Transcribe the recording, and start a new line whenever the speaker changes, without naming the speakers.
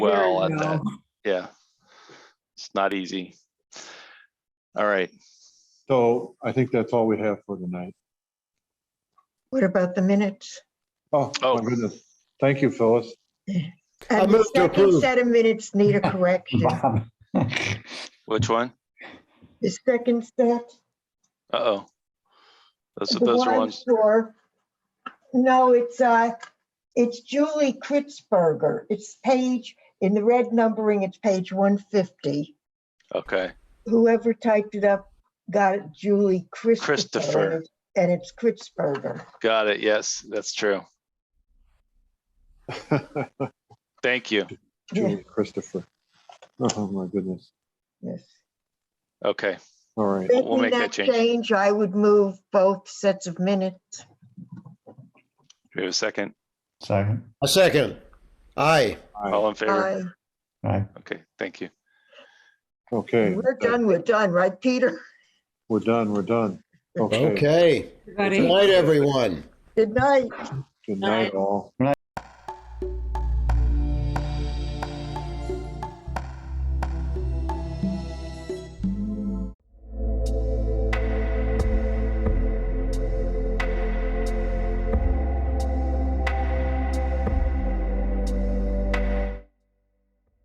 well
Very
at that. Yeah. It's not easy. All right.
So I think that's all we have for tonight.
What about the minutes?
Oh,
Oh.
my goodness. Thank you, Phyllis.
I
And the
move to
second
approve.
set of minutes need a correction.
Bob,
Which one?
The second set.
Uh-oh. Those,
the
those are
one
ones.
for- No, it's, uh, it's Julie Kritzberger. It's page, in the red numbering, it's page 150.
Okay.
Whoever typed it up got it Julie
Christopher.
Christopher. And it's Kritzberger.
Got it. Yes, that's true. Thank you.
Julie Christopher. Oh, my goodness.
Yes.
Okay.
All right.
We'll
Making
make that
that
change.
change, I would move both sets of minutes.
Do we have a second?
Second.
A second. Aye.
Aye.
All in favor?
Aye.
Aye.
Okay, thank you.
Okay,
We're done, we're done, right, Peter?
we're done, we're done. Okay,
Okay. Good
Everybody.
night, everyone.
Good night.
good night all.